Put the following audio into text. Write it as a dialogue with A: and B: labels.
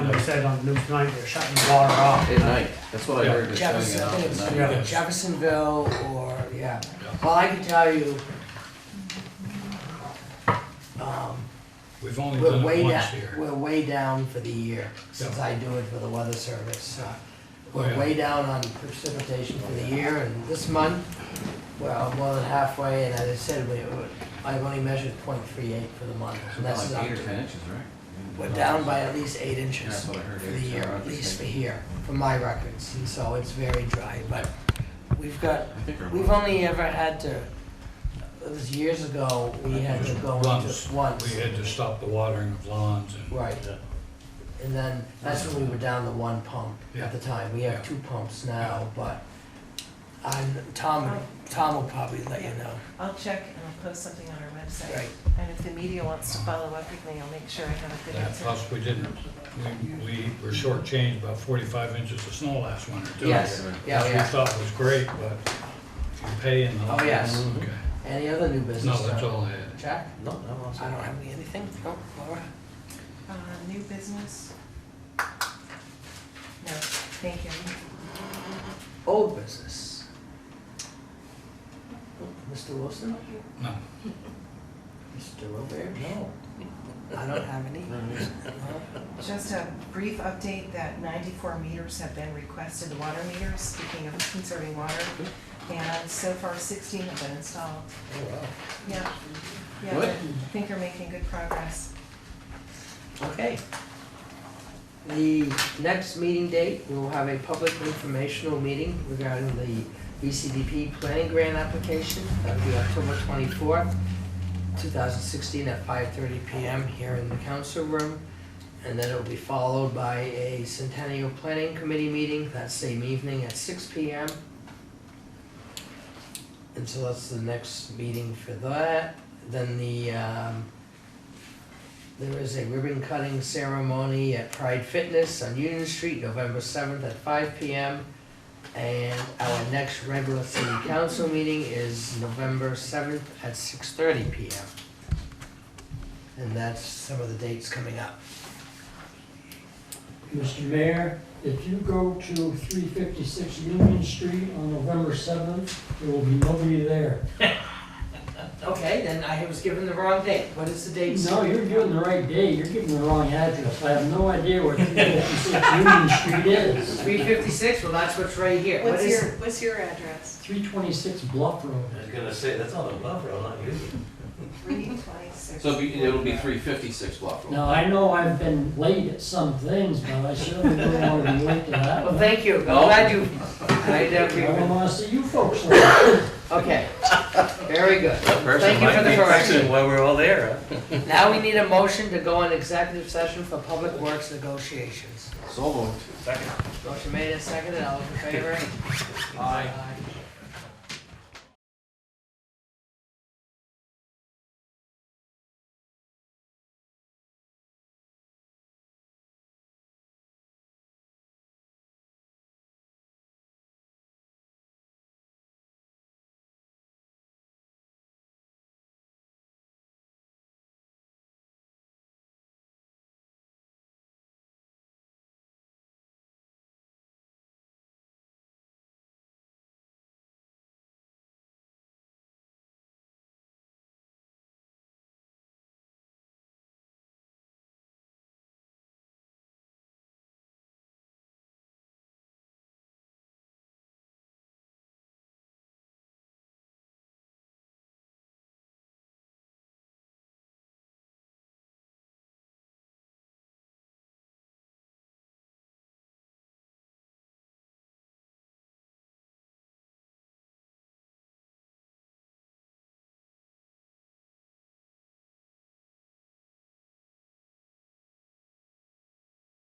A: said on the news tonight, they're shutting the water off.
B: At night, that's what I heard, they're shutting it
C: Jefferson, I think
B: off
C: it's
B: at night.
C: either Jeffersonville or, yeah. Well, I can tell you, um,
D: We've only
C: we're
D: done
C: way
D: it once
C: down,
D: here.
C: we're way down for the year, since
D: Yeah.
C: I do it for the weather service. Uh,
D: Oh,
C: We're
D: yeah.
C: way down on precipitation for the year, and this month, well, more than halfway, and as I said, we, we- I've only measured point three eight for the month, and
B: About
C: that's
B: like
C: not,
B: eight or ten inches, right?
C: we're down by at least eight
B: Yeah,
C: inches
B: that's what I heard.
C: for
B: eight
C: the
B: or
C: year,
B: 10.
C: at least for here, for my records, and so it's very dry, but we've got
B: I think
C: We've
B: we're,
C: only ever had to, it was years ago, we had to go in
D: Once.
C: just once.
D: We had to stop the watering of lawns and.
C: Right. And then, that's when we were down to one pump
D: Yeah.
C: at the time. We
D: Yeah.
C: have two pumps now, but I'm, Tom, Tom will probably let you know.
E: I'll check and I'll post something on our website.
C: Right.
E: And if the media wants to follow up with me, I'll make sure I have a good
D: That
E: answer.
D: plus we didn't, we, we were shortchanged about forty-five inches of snow last winter too.
C: Yes, yeah,
D: Which we
C: yeah.
D: thought was great, but if you pay in the.
C: Oh, yes.
D: Okay.
C: Any other new business?
D: No, that's
C: Tom?
D: all I had.
C: Jack?
B: no, no, I'm all set.
C: I don't have anything. Oh, No, Laura?
E: Uh, new business? No, thank you.
C: Old business? Mr. Wilson?
D: No,
C: Mr. Robert? No. I don't have any. Oh, No.
E: Just a brief update that ninety-four meters have been requested, water meters, speaking of conserving water. And so far sixteen have been installed.
C: Oh, wow.
E: Yeah, yeah,
B: Good.
E: I think you're making good progress.
C: Okay. The next meeting date, we will have a public informational meeting regarding the BCDP planning grant application. That'll be October twenty-fourth, two thousand sixteen, at five thirty PM here in the council room. And then it'll be followed by a centennial planning committee meeting that same evening at six PM. And so that's the next meeting for that. Then the, um, there is a ribbon cutting ceremony at Pride Fitness on Union Street, November seventh at five P M. And our next regular city council meeting is November seventh at six thirty P M. And that's some of the dates coming up.
F: Mr. Mayor, if you go to three fifty-six Union Street on November seventh, there will be nobody there.
C: Okay, then I was given the wrong date. What is the date?
F: No, you're giving the right day, you're giving the wrong address. I have no idea where three fifty-six Union Street is.
C: Three fifty-six, well, that's what's right here. What
G: What's
C: is
G: your,
C: it?
G: what's your address?
F: Three twenty-six Bluff Road.
H: I was gonna say, that's on the buffer, I'm not using it.
E: Three twenty-six.
B: So it'll be, it'll be three fifty-six block roll.
F: Now, I know I've been late at some things, but I certainly don't want to be late to that
C: Well,
F: one.
C: thank you. I'm
B: No.
C: glad you. I never
F: I don't
C: even-
F: want to see you folks late.
C: Okay, very good.
H: That person
C: Thank you
H: might
C: for the
H: be
C: correction.
H: fixing While we're all there, huh?
C: Now we need a motion to go on executive session for public works negotiations.
B: So moved.
C: Motion made and seconded, all in favor? Aye.